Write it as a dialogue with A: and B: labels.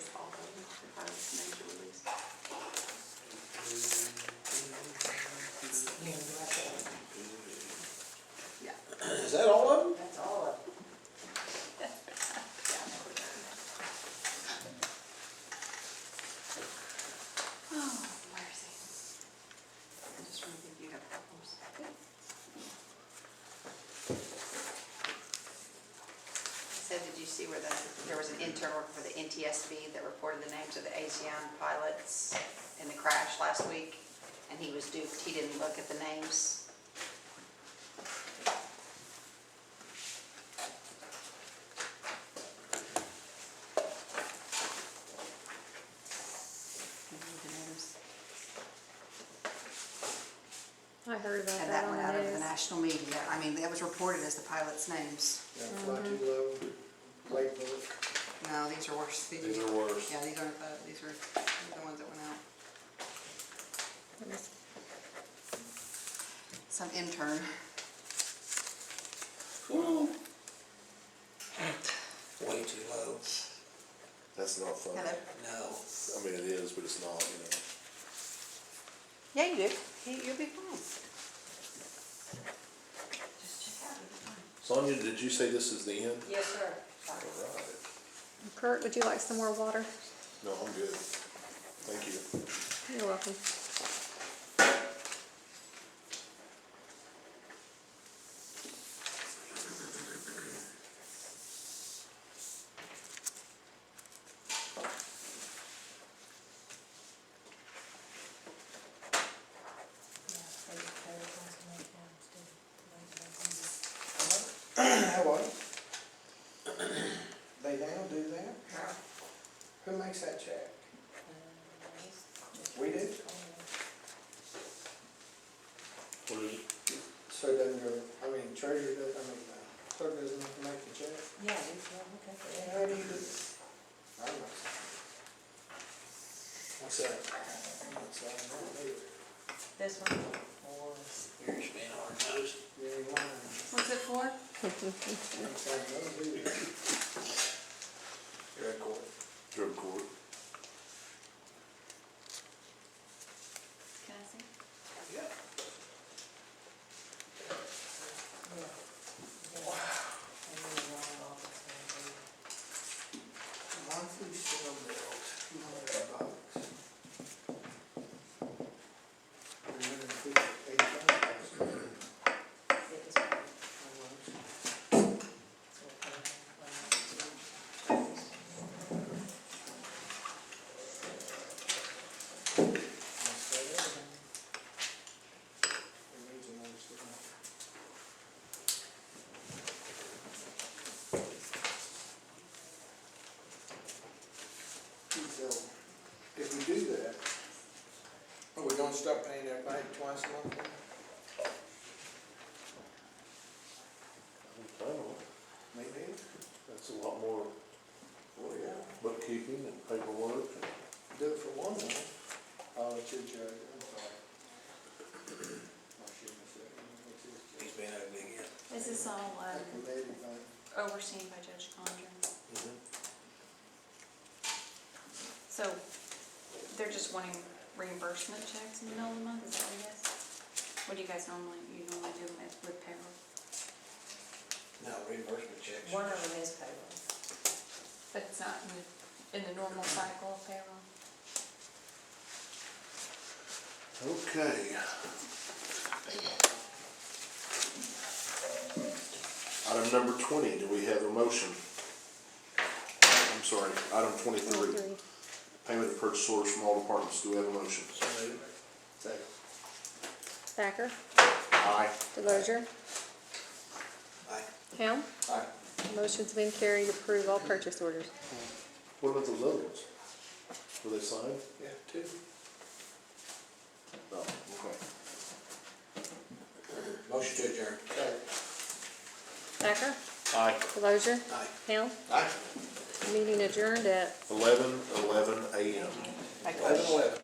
A: see where the, there was an intern working for the NTSB that reported the names of the ASEAN pilots in the crash last week, and he was duped, he didn't look at the names.
B: I heard about
A: And
B: that
A: that
B: on
A: went out
B: the
A: of the
B: news.
A: national media, I mean, that was reported as the pilots' names.
C: Yeah, fly too low, late book.
A: No, these are worse.
D: These are worse.
A: Yeah, these aren't the, these are the ones that went out.
B: It was-
A: Some intern.
E: way too low.
D: That's not fun.
A: Hello?
E: No.
D: I mean, it is, but it's not, you know.
A: Yeah, you do. You- You'll be fine. Just check out,
D: Sonia, did you say this is the end?
A: Yes, sir.
D: All right.
B: Kurt, would you like some more water?
D: No, I'm good. Thank you.
B: You're welcome.
C: How are you? They now do that? Who makes that check? We do?
D: What is it?
C: So then your, I mean, treasurer, does- I mean, uh, clerk doesn't have to make the check?
F: Yeah, it's, uh, okay.
C: How do you do this? I don't know. What's that? What's that? I don't know.
F: This one was
E: You're just being hard nosed.
C: You ain't lying.
A: What's it for?
C: It's like, no, do it. You're a court.
D: Drug court.
A: Can I see?
C: Yeah. Monthly cell bill, two hundred bucks. Three hundred and fifty, eight hundred. It needs another signature. So, if we do that, are we gonna start paying everybody twice a month?
D: I don't know.
C: Maybe.
D: That's a lot more
C: Well, yeah,
D: bookkeeping and paperwork and.
C: do it for one month. Oh, I'll let you judge, I'm sorry. Oh, I shouldn't have said it. It's just-
E: He's being ugly again.
G: Is this all
C: I
G: um,
C: can let it go.
G: overseen by Judge Condon?
F: Mm-hmm.
G: So they're just wanting reimbursement checks in the middle of the month, is that what it is? What do you guys normally, you normally do with with payroll?
E: No, reimbursement checks.
F: One of them is payroll.
G: But it's not in the, in the normal cycle of payroll?
D: Okay. Item number twenty, do we have a motion? I'm sorry, item twenty-three,
B: Three.
D: payment of purchase orders from all departments, do we have a motion?
C: Second.
B: Thacker,
D: Aye.
B: Delozer,
E: Aye.
B: Helm.
C: Aye.
B: Motion's been carried to approve all purchase orders.
D: What about those other ones? Were they signed?
C: Yeah, two.
D: No, okay.
E: Motion to adjourn.
C: Second.
B: Thacker,
D: Aye.
B: Delozer,
E: Aye.
B: Helm.
E: Aye.
B: Meeting adjourned at
D: Eleven, eleven AM.
C: Eleven, eleven.